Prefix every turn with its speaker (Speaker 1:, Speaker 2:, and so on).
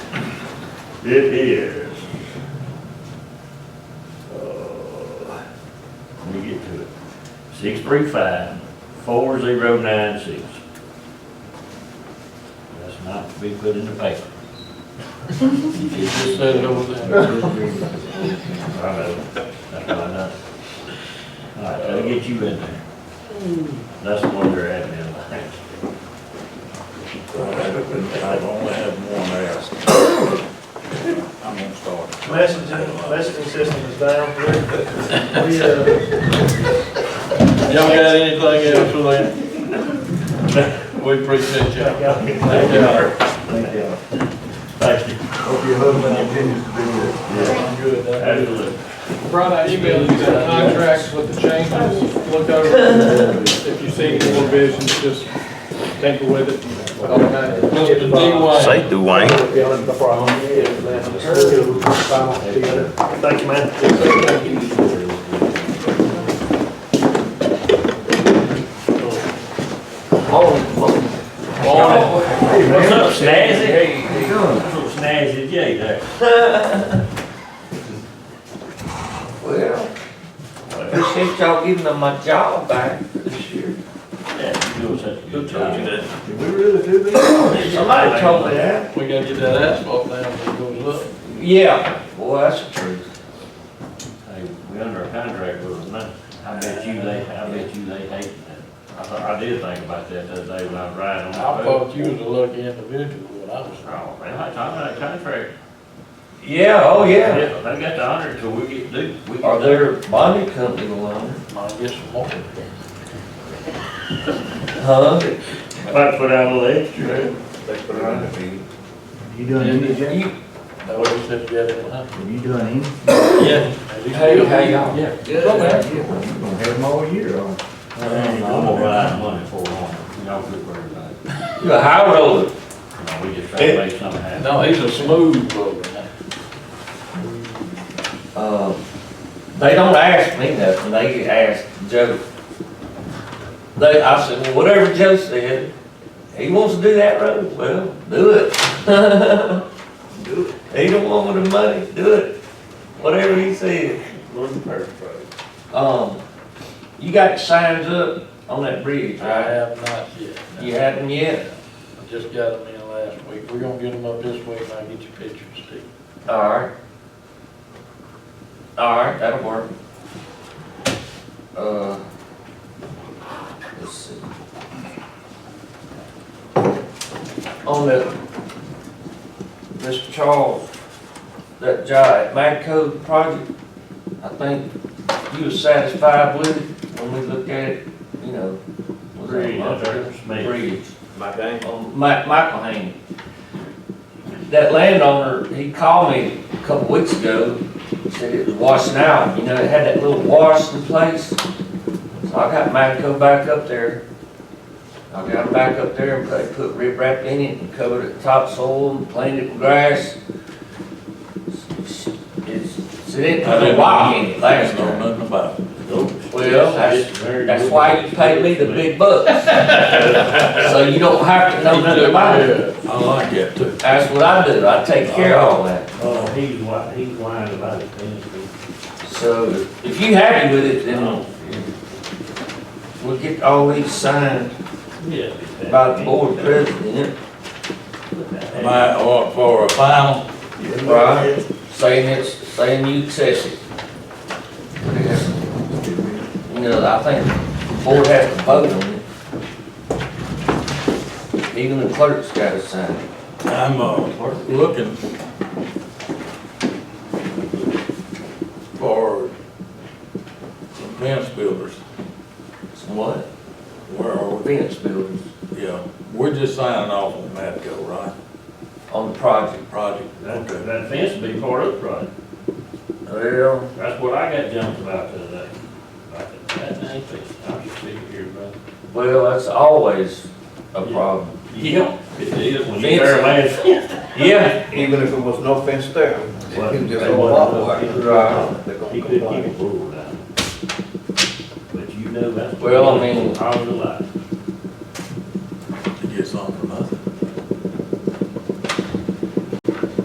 Speaker 1: It is. uh, Let me get to it. Six three five, four zero nine six. That's not to be put in the paper.
Speaker 2: Just said it over there.
Speaker 1: I know, that's why I know. All right, that'll get you in there. That's one of their admin lines.
Speaker 3: I've only had one ask. I'm gonna start.
Speaker 4: Messaging, messaging system is down. We, uh,
Speaker 2: Y'all got anything else for that? We appreciate you.
Speaker 4: got-
Speaker 2: Thank you.
Speaker 1: Thank you. Thank you.
Speaker 3: Hope your husband continues to be there.
Speaker 1: Yeah, Absolutely.
Speaker 2: Brought out email, you got contracts with the changes, look over. If you see any revisions, just tinker with it. Mr. D.
Speaker 5: Say, Dwayne.
Speaker 4: Thank you, man.
Speaker 2: White, morning.
Speaker 1: What's up, Snazzy? Hey, how you doing? Little Snazzy J there.
Speaker 6: Well, appreciate y'all giving them my job back this year.
Speaker 1: Yeah, you doing such a good
Speaker 2: told
Speaker 1: job.
Speaker 2: you
Speaker 3: Did we really do this?
Speaker 6: Somebody told me that.
Speaker 2: We gotta get that asphalt down, it goes up.
Speaker 6: Yeah, well, that's the truth.
Speaker 1: Hey, we under a contract with them now. I bet you they, I bet you they hate that. I thought, I did think about that the other day when I was riding on the
Speaker 2: I
Speaker 1: road.
Speaker 2: thought you was a lucky individual, but I was wrong.
Speaker 1: Oh, man, I talking about a contract.
Speaker 6: Yeah, oh,
Speaker 1: Yeah,
Speaker 6: yeah.
Speaker 1: they got the honor till we get due. We
Speaker 6: Are
Speaker 1: get there.
Speaker 6: there bonding company alone?
Speaker 2: I guess I'm wrong.
Speaker 6: Huh?
Speaker 1: Might put out a little extra.
Speaker 3: You doing any, Jay?
Speaker 6: You,
Speaker 2: That way we said together, huh?
Speaker 3: You doing any?
Speaker 2: Yeah.
Speaker 6: Hey, how y'all?
Speaker 2: Yeah.
Speaker 6: Go back.
Speaker 3: We're gonna have them all year, aren't we?
Speaker 1: I'm gonna ride money for them. Y'all quit worrying about it.
Speaker 6: you a high roller.
Speaker 1: No, we just try to make something happen.
Speaker 2: No, he's a smooth road.
Speaker 6: Um, they don't ask me nothing, they ask Joe. They, I said, well, whatever Joe said, he wants to do that road, well, do it. Do it. He don't want the money, do it. Whatever he said. Um, you got signs up on that bridge,
Speaker 2: I
Speaker 6: right?
Speaker 2: have not yet. no.
Speaker 6: You haven't yet?
Speaker 2: I Just got them in last week. We're gonna get them up this week and I'll get your pictures, Steve.
Speaker 6: Alright. Alright, that'll work. Uh, let's see. On the, Mr. Charles, that job at Magco project, I think you were satisfied with it when we looked at it, you know. was that a
Speaker 1: Agreed,
Speaker 6: month
Speaker 1: that's
Speaker 6: ago?
Speaker 1: right.
Speaker 6: Agreed.
Speaker 4: My game.
Speaker 6: on Ma- Michael Haney. That landowner, he called me a couple weeks ago, said it was washing out, you know, it had that little wash in place. So I got mine to go back up there. I got it back up there and put, put rip wrap in it and covered it with topsoil and planted it with grass. It's, it didn't put a rock in it last
Speaker 3: Don't
Speaker 6: time.
Speaker 3: know nothing about it.
Speaker 6: Well, that's, that's why you pay me the big bucks. So you don't have to know nothing about it.
Speaker 3: I like that too.
Speaker 6: That's what I do, I take care of all that.
Speaker 1: Oh, he's whine, he's whining about it, things.
Speaker 6: So if you happy with it, then we'll get all these signed
Speaker 1: Yeah.
Speaker 6: by the board president,
Speaker 3: Am I, or oh, for a final?
Speaker 6: right? Saying it's, saying you accept it. You know, I think the board has to vote on it. Even the clerk's gotta sign it.
Speaker 3: I'm, uh, looking for some fence builders.
Speaker 6: What?
Speaker 3: Where are we?
Speaker 6: Fence builders
Speaker 3: Yeah, we're just signing off on Matco, right?
Speaker 6: on the project.
Speaker 3: Project.
Speaker 1: That, that fence will be part of the project.
Speaker 6: Well,
Speaker 1: That's what I got jumped about the other day. Like, That ain't fixed. I'm just sitting here, brother.
Speaker 6: well, that's always a problem.
Speaker 1: Yeah. It is when you tear a man's fence.
Speaker 6: Yeah.
Speaker 7: Even if it was no fence there.
Speaker 1: Well,
Speaker 7: just
Speaker 1: they wasn't
Speaker 7: a walk
Speaker 1: gonna
Speaker 7: away.
Speaker 1: keep it
Speaker 6: Right.
Speaker 1: down. He could keep it pulled down. But you know that's.
Speaker 6: Well, I mean-
Speaker 1: All the life.